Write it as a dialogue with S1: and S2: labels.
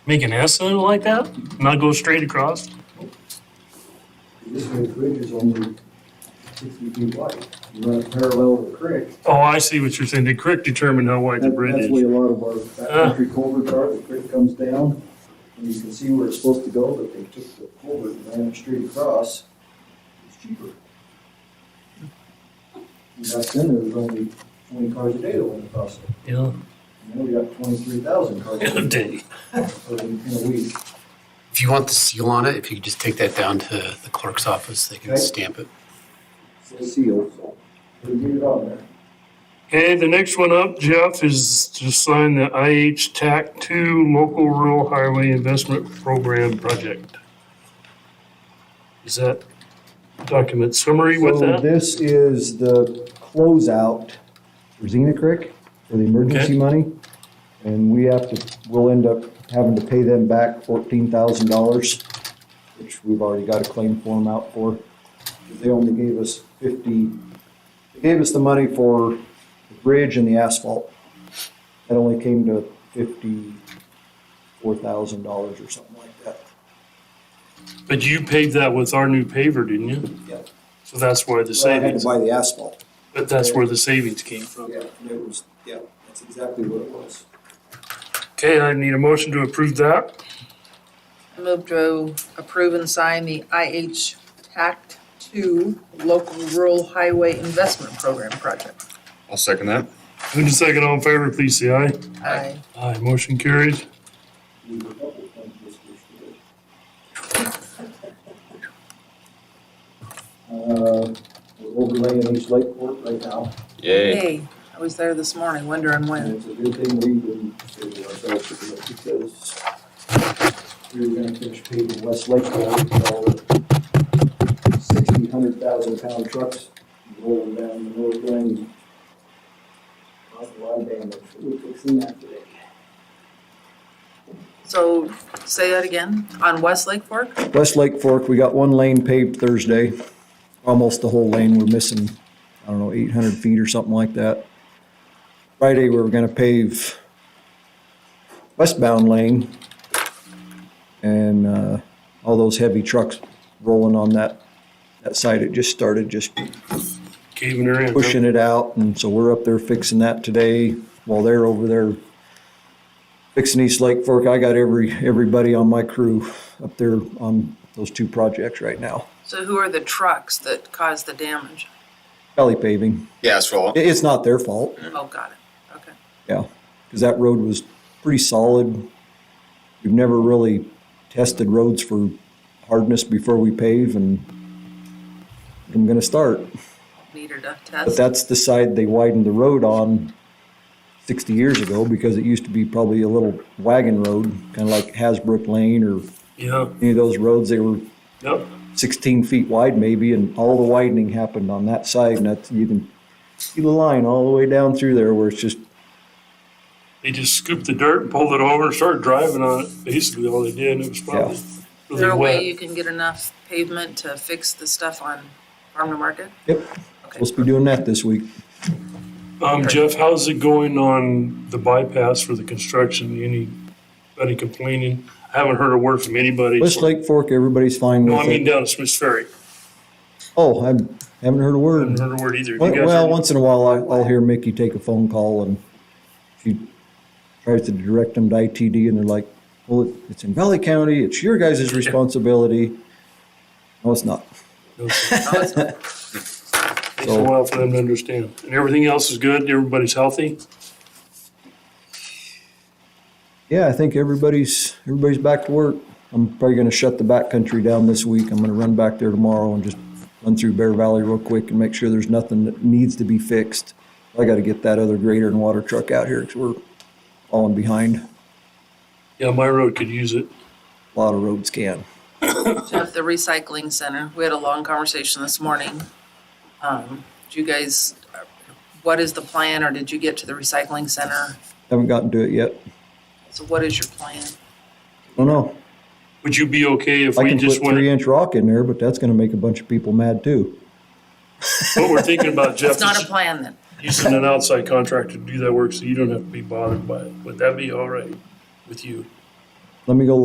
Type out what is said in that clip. S1: Make an S though like that? Not go straight across?
S2: This way the bridge is only sixty feet wide, You run it parallel to the creek.
S1: Oh, I see what you're saying. The creek determined how wide the
S2: That-
S1: bridge
S2: That's
S1: is.
S2: where a lot of our
S1: Ah.
S2: backcountry culverts are, the creek comes down, and you can see where it's supposed to go, but they took the culvert and ran it straight across. It's cheaper. And back then, there was only twenty cars a day that went across it,
S1: Yeah.
S2: and now we got twenty-three thousand cars
S1: In a
S2: a day,
S1: day.
S2: so in in a week.
S3: If you want the seal on it, if you could just take that down to the clerk's office, they can
S2: Okay.
S3: stamp it.
S2: It's sealed, so we get it on there.
S1: Okay, the next one up, Jeff, is to sign the IH TAC two local rural highway investment program project. Is that document summary with
S2: So
S1: that?
S2: this is the closeout for Xena Creek for the emergency money. And we have to, we'll end up having to pay them back fourteen thousand dollars, which we've already got a claim form out for. They only gave us fifty, they gave us the money for the bridge and the asphalt. That only came to fifty-four thousand dollars or something like that.
S1: But you paved that with our new paver, didn't you?
S2: Yeah.
S1: So that's where the
S2: So I had
S1: savings,
S2: to buy the asphalt.
S1: but that's where the savings came from.
S2: Yeah, and it was, yeah, that's exactly what it was.
S1: Okay, I need a motion to approve that.
S4: I move to approve and sign the IH TACT two Local Rural Highway Investment Program project.
S5: I'll second that.
S1: Who's the second all in favor, please say aye.
S4: I
S1: Aye, motion carries.
S2: Uh, we're overlaying East Lakeport right now,
S5: Yay.
S4: Hey, I was there this morning wondering
S2: and
S4: when.
S2: it's a good thing we didn't save it ourselves to do it because we were gonna finish paving West Lakeport, so sixty, hundred thousand pound trucks rolling down the north lane. Caused a lot of damage, we're fixing that today.
S4: So say that again, on West Lake Fork?
S2: West Lake Fork, we got one lane paved Thursday, almost the whole lane, we're missing, I don't know, eight hundred feet or something like that. Friday, we were gonna pave westbound lane. And, uh, all those heavy trucks rolling on that, that side, it just started just
S1: Caving her in. huh?
S2: pushing it out, and so we're up there fixing that today while they're over there fixing East Lake Fork. I got every, everybody on my crew up there on those two projects right now.
S4: So who are the trucks that caused the damage?
S2: Valley paving.
S5: Yeah, it's for all.
S2: I- It's not their fault,
S4: Oh, got it, okay.
S2: yeah, because that road was pretty solid. We've never really tested roads for hardness before we pave, and I'm gonna start.
S4: Meter duct
S2: But
S4: test.
S2: that's the side they widened the road on sixty years ago because it used to be probably a little wagon road, kind of like Hasbrook Lane or
S1: Yeah,
S2: any of those roads. They were
S1: yep.
S2: sixteen feet wide maybe, and all the widening happened on that side. And that's, you can see the line all the way down through there where it's just,
S1: They just scooped the dirt and pulled it over and started driving on it. Basically all they did, and it was probably
S4: Is there
S1: really
S4: a way
S1: wet.
S4: you can get enough pavement to fix the stuff on Farm to Market?
S2: yep,
S4: Okay,
S2: supposed to be doing that this week.
S1: Um, Jeff, how's it going on the bypass for the construction? Anybody complaining? I haven't heard a word from anybody.
S2: West Lake Fork, everybody's fine
S1: No, I
S2: with
S1: mean
S2: it.
S1: down at Smith's Ferry.
S2: Oh, I haven't heard a word.
S1: Haven't heard a word either. You guys
S2: Well,
S1: heard?
S2: once in a while, I- I'll hear Mickey take a phone call and she tries to direct them to ITD and they're like, well, it- it's in Valley County, it's your guys' responsibility. No, it's not.
S1: No, sir.
S4: No, it's not.
S1: Takes a while for them to understand. And everything else is good? Everybody's healthy?
S2: Yeah, I think everybody's, everybody's back to work. I'm probably gonna shut the backcountry down this week. I'm gonna run back there tomorrow and just run through Bear Valley real quick and make sure there's nothing that needs to be fixed. I gotta get that other grader and water truck out here because we're falling behind.
S1: Yeah, my road could use it.
S2: A lot of roads can.
S4: Jeff, the recycling center, we had a long conversation this morning. Um, do you guys, what is the plan, or did you get to the recycling center?
S2: Haven't gotten to it yet.
S4: So what is your plan?
S2: Don't know.
S1: Would you be okay if
S2: I
S1: we
S2: can
S1: just
S2: put
S1: went?
S2: three inch rock in there, but that's gonna make a bunch of people mad too.
S1: What we're thinking about, Jeff,
S4: It's not
S1: is
S4: a plan then.
S1: using an outside contractor to do that work so you don't have to be bothered by it. Would that be all right with you?
S2: Let me go